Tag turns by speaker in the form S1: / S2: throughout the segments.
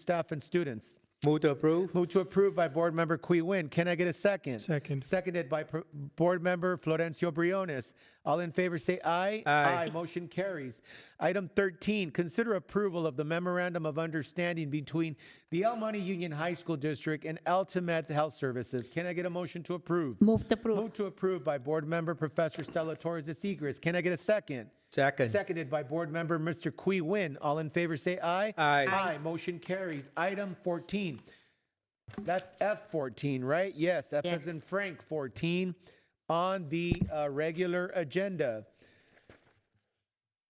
S1: staff, and students.
S2: Move to approve.
S1: Move to approve by Board Member Qui Win. Can I get a second?
S3: Second.
S1: Seconded by Pro- Board Member Florencio Briones. All in favor say aye.
S2: Aye.
S1: Motion carries. Item 13, consider approval of the memorandum of understanding between the El Monte Union High School District and Altamed Health Services. Can I get a motion to approve?
S4: Move to approve.
S1: Move to approve by Board Member Professor Stella Torres de Seigres. Can I get a second?
S2: Second.
S1: Seconded by Board Member Mr. Qui Win. All in favor say aye.
S2: Aye.
S1: Aye. Motion carries. Item 14. That's F14, right? Yes, F as
S4: Yes.
S1: in Frank 14 on the uh, regular agenda.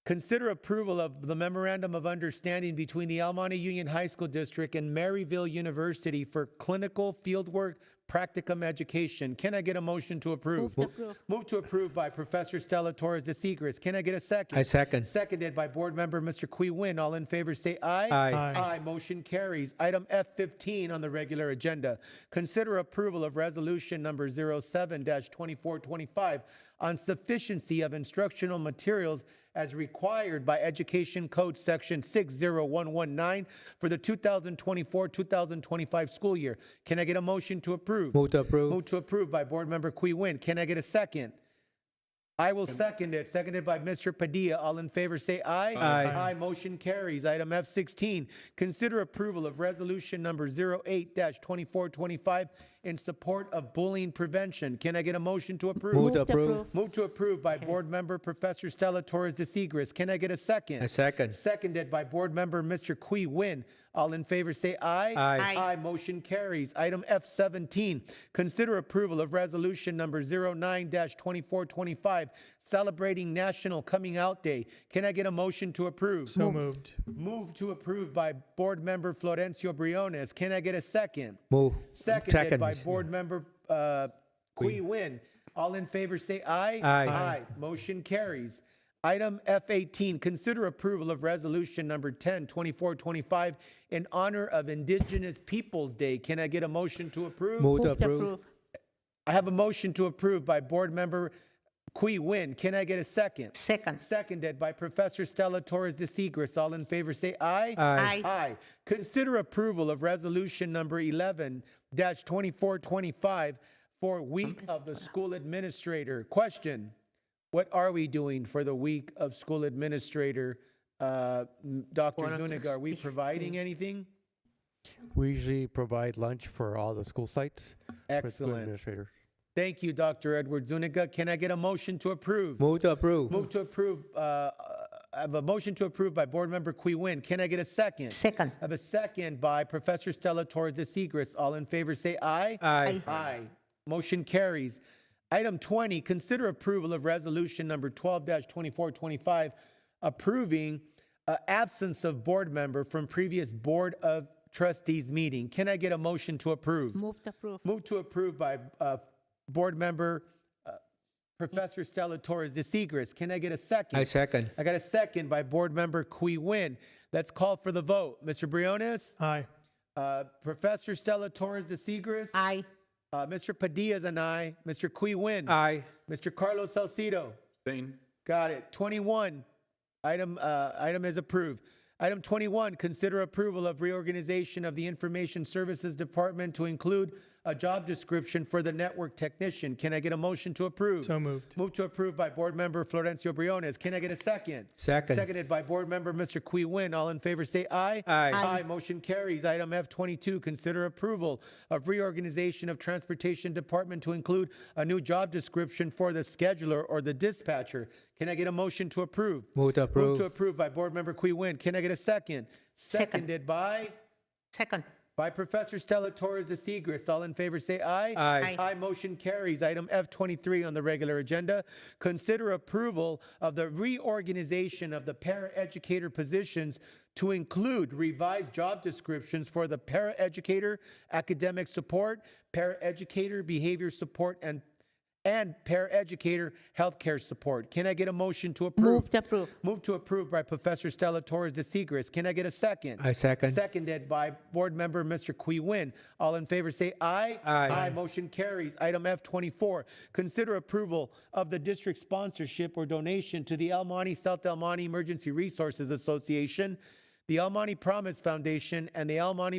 S1: Consider approval of the Memorandum of Understanding between the El Monte Union High School District and Maryville University for clinical fieldwork practicum education. Can I get a motion to approve?
S4: Move to approve.
S1: Move to approve by Professor Stella Torres de Seigres. Can I get a second?
S2: I second.
S1: Seconded by Board Member Mr. Qui Win. All in favor say aye.
S2: Aye.
S3: Aye.
S1: Aye. Motion carries. Item F15 on the regular agenda. Consider approval of resolution number 07-2425 on sufficiency of instructional materials as required by Education Code Section 60119 for the 2024-2025 school year. Can I get a motion to approve?
S2: Move to approve.
S1: Move to approve by Board Member Qui Win. Can I get a second? I will second it. Seconded by Mr. Padilla. All in favor say aye.
S2: Aye.
S1: Aye. Motion carries. Item F16, consider approval of resolution number 08-2425 in support of bullying prevention. Can I get a motion to approve?
S2: Move to approve.
S1: Move to approve by Board Member Professor Stella Torres de Seigres. Can I get a second?
S2: I second.
S1: Seconded by Board Member Mr. Qui Win. All in favor say aye.
S2: Aye.
S4: Aye.
S1: Motion carries. Item F17, consider approval of resolution number 09-2425, celebrating National Coming Out Day. Can I get a motion to approve?
S3: So moved.
S1: Move to approve by Board Member Florencio Briones. Can I get a second?
S2: Move.
S1: Seconded by
S2: Second.
S1: Board Member uh, Qui Win. All in favor, say aye.
S2: Aye.
S1: Aye. Motion carries. Item F18, consider approval of resolution number 10, 2425 in honor of Indigenous Peoples Day. Can I get a motion to approve?
S2: Move to
S4: Move to
S2: approve.
S4: approve.
S1: I have a motion to approve by Board Member Qui Win. Can I get a second?
S4: Second.
S1: Seconded by Professor Stella Torres de Seigres. All in favor, say aye.
S4: Aye.
S1: Aye. Consider approval of resolution number 11 2425 for week of the school administrator. Question. What are we doing for the week of school administrator? Uh, m- Dr. Zuniga, are we providing anything?
S5: We usually provide lunch for all the school sites. for the school
S1: Excellent.
S5: Administrators.
S1: Thank you, Dr. Edward Zuniga. Can I get a motion to approve?
S2: Move to approve.
S1: Move to approve, uh, uh, I have a motion to approve by Board Member Qui Win. Can I get a second?
S4: Second.
S1: I have a second by Professor Stella Torres de Seigres. All in favor, say aye.
S2: Aye.
S1: Aye. Motion carries. Item 20, consider approval of resolution number 12-2425, approving uh, absence of board member from previous Board of Trustees meeting. Can I get a motion to approve?
S4: Move to approve.
S1: Move to approve by uh, Board Member uh, Professor Stella Torres de Seigres. Can I get a second?
S2: I second.
S1: I got a second by Board Member Qui Win. Let's call for the vote. Mr. Briones,
S3: Aye.
S1: uh, Professor Stella Torres de Seigres,
S4: Aye.
S1: uh, Mr. Padilla is an aye. Mr. Qui Win,
S2: Aye.
S1: Mr. Carlos Salcido. Got it. 21, item, uh, item is approved. Item 21, consider approval of reorganization of the Information Services Department to include a job description for the network technician. Can I get a motion to approve?
S3: So moved.
S1: Move to approve by Board Member Florencio Briones. Can I get a second?
S2: Second.
S1: Seconded by Board Member Mr. Qui Win. All in favor say aye.
S2: Aye.
S1: Aye. Motion carries. Item F22, consider approval of reorganization of Transportation Department to include a new job description for the scheduler or the dispatcher. Can I get a motion to approve?
S2: Move to
S1: Move to
S2: approve.
S1: approve by Board Member Qui Win. Can I get a second?
S4: Second.
S1: Seconded by?
S4: Second.
S1: By Professor Stella Torres de Seigres. All in favor say aye.
S2: Aye.
S4: Aye.
S1: Aye. Motion carries. Item F23 on the regular agenda. Consider approval of the reorganization of the paraeducator positions to include revised job descriptions for the paraeducator, academic support, paraeducator, behavior support, and and paraeducator healthcare support. Can I get a motion to approve?
S4: Move to approve.
S1: Move to approve by Professor Stella Torres de Seigres. Can I get a second?
S2: I second.
S1: Seconded by Board Member Mr. Qui Win. All in favor say aye.
S2: Aye.
S1: Motion carries. Item F24, consider approval of the district sponsorship or donation to the El Monte South El Monte Emergency Resources Association. the Almani Promise Foundation, and the Almani